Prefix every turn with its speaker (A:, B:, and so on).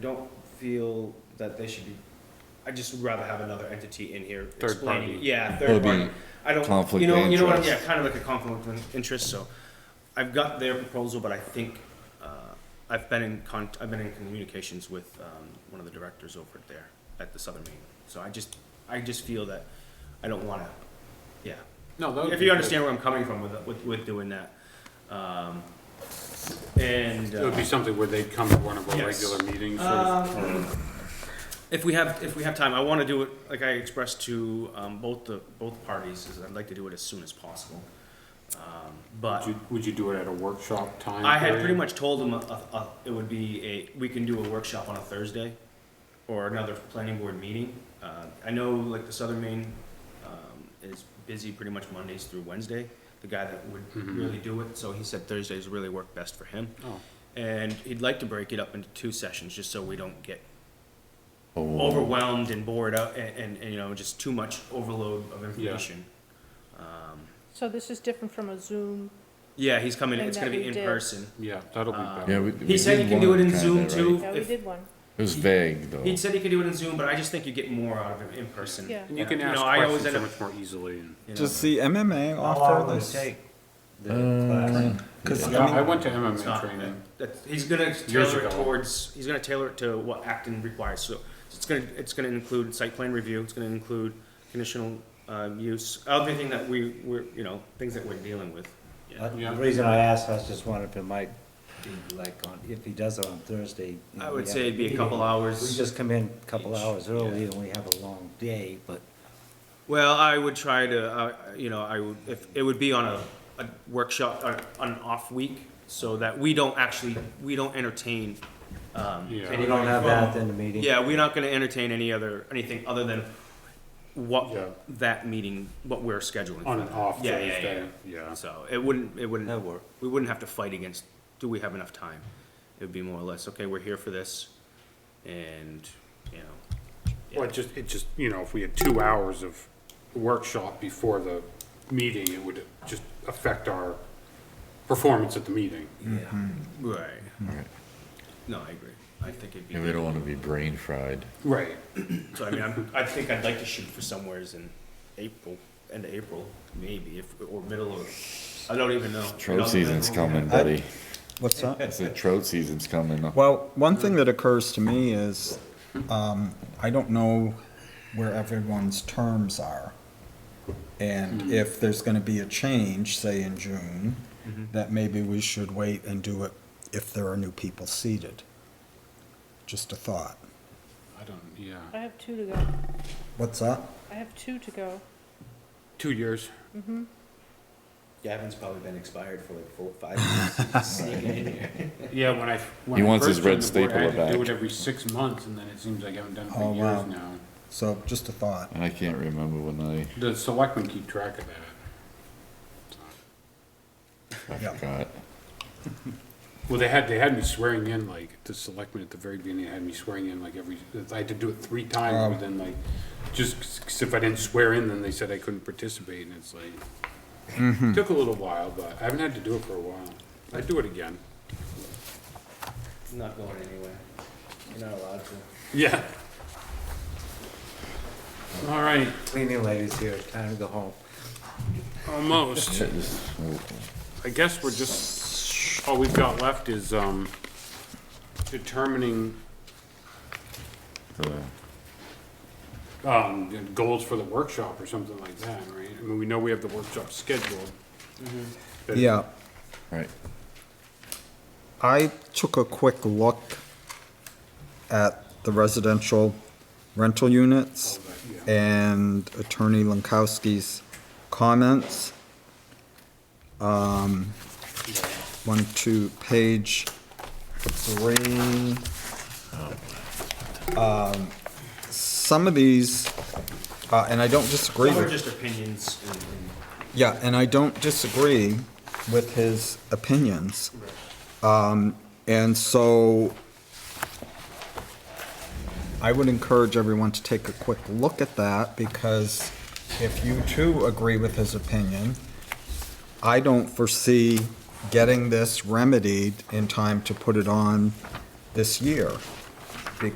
A: don't feel that they should be, I just would rather have another entity in here
B: Third
A: explaining.
B: party.
A: Yeah,
C: That
A: third
C: would be
A: party. I don't,
C: conflict
A: you know,
C: of
A: you know what, yeah,
C: interest.
A: kind of like a conflict of interest, so. I've got their proposal, but I think, uh, I've been in con, I've been in communications with, um, one of the directors over there at the Southern Maine. So I just, I just feel that I don't wanna, yeah.
B: No, that would
A: If
B: be
A: you
B: good.
A: understand where I'm coming from with, with, with doing that. Um, and.
B: It would
A: uh,
B: be something where they'd come to one of our
A: Yes. Um,
B: regular meetings, sort of,
A: If we have, if we have time, I want to do it, like I expressed to um, both the, both parties, is I'd like to do it as soon as possible. Um,
B: would
A: But
B: you, would you do it at a workshop time?
A: I had pretty
B: period?
A: much told them a- a- a- it would be a, we can do a workshop on a Thursday or another planning board meeting. Uh, I know like the Southern Maine um, is busy pretty much Mondays through Wednesday, the guy that would
B: Mhm.
A: really do it, so he said Thursdays really work best for him.
B: Oh,
A: And he'd like to break it up into two sessions, just so we don't get
C: Oh,
A: overwhelmed and bored out and, and, and, you know, just too much overload of information. Um,
D: So this is different from a Zoom,
A: yeah, he's coming,
D: And
A: it's gonna
D: that
A: be
D: we
A: in
D: did.
A: person.
B: yeah, that'll be
A: Uh,
B: better.
C: Yeah, we, we
A: He said
C: did
A: you can do
C: one
A: it in
C: kinda,
A: Zoom
C: right?
A: too.
D: yeah, we
A: If-
D: did one.
C: It was vague though.
A: He said he could do it in Zoom, but I just think you get more out of it in person.
D: Yeah.
B: And you can ask
A: know, I always
B: questions so
A: end up,
B: much more easily and.
A: you know,
E: Does the MMA offer this?
C: Uh,
E: Because
B: Yeah, I
E: I mean,
B: went to
A: it's
B: MMA
A: not,
B: training.
A: uh, that- that- he's gonna tailor
B: ago.
A: it towards, he's gonna tailor it to what Acton requires, so it's gonna, it's gonna include site plan review, it's gonna include conditional, uh, use, everything that we, we're, you know, things that we're dealing with.
F: Uh,
B: Yeah.
F: The reason I asked, I was just wondering if it might be like on, if he does it on Thursday. you know,
A: I
F: we
A: would
F: have
A: say it'd be a
F: meeting.
A: couple hours.
F: We just come in a couple
A: Each,
F: hours early and we have a long day, but
A: Well, I would try to, uh, you know, I would, if, it would be on a, a workshop, on, on an off week, so that we don't actually, we don't entertain, um.
B: Yeah.
F: we
A: anybody
F: don't have
A: from-
F: that in the meeting.
A: Yeah, we're not gonna entertain any other, anything other than
B: Yeah.
A: what that meeting, what we're scheduling.
B: On
A: for
B: an
A: that.
B: off
A: Yeah, yeah,
B: Thursday, yeah.
A: yeah. So it wouldn't, it wouldn't.
F: That'd work.
A: We wouldn't have to fight against, do we have enough time? It would be more or less, okay, we're here for this, and, you know,
B: Well, it just, it just, you know, if we had two hours of workshop before the meeting, it would just affect our performance at the meeting.
A: right.
C: Right.
A: No, I agree. I think it'd be.
C: And we don't wanna be brain fried.
B: Right.
A: So I mean, I'm, I think I'd like to shoot for somewheres in April, end of April, maybe, if, or middle of, I don't even know. It all
C: Trout
A: depends
C: season's
A: on what we
C: coming,
A: have.
C: buddy.
E: what's
C: I
E: that?
C: said trout season's coming.
E: Well, one thing that occurs to me is, um, I don't know where everyone's terms are. And if there's gonna be a change, say in June, that maybe we should wait and do it if there are new people seated. Just a thought.
B: I don't, yeah.
D: I have two to go.
E: What's that?
D: I have two to go.
B: Two years.
A: Gavin's probably been expired for like four, five years. He's sneaking in here.
B: Yeah, when I. when
C: He
B: I
C: wants
B: first
C: his red
B: joined the board, I had
C: stapler
B: to Do
C: back.
B: it every six months, and then it seems like I haven't done it
E: Oh,
B: for
E: wow.
B: years now.
E: So, just a thought.
C: And I can't remember when
B: The selectmen keep track of that.
C: I, I
E: Yeah.
C: forgot.
B: Well, they had, they had me swearing in, like, the selectmen at the very beginning had me swearing in, like, every, I had to do it three
E: Oh.
B: times, but then, like, just, 'cause if I didn't swear in, then they said I couldn't participate, and it's like,
E: Mm-hmm.
B: took a little while, but I haven't had to do it for a while. I'd do it again.
A: It's Not going anywhere. You're not allowed to.
B: Yeah. All right,
F: Cleaning ladies here, time to go home.
B: almost.
C: uh,
B: I guess we're just, all we've got left is, um, determining,
C: So,
B: um, goals for the workshop or something like that, right? I mean, we know we have the workshop scheduled. but-
E: Yeah.
C: Right.
E: I took a quick look at the residential rental units and Attorney Lankowski's comments. Um, One, two, page three. Um, Some of these, uh, and I don't disagree
A: Some
E: with.
A: are just opinions and, and
E: Yeah, and I don't disagree with his opinions. Um, and so I would encourage everyone to take a quick look at that because if you too agree with his opinion, I don't foresee getting this remedied in time to put it on this year.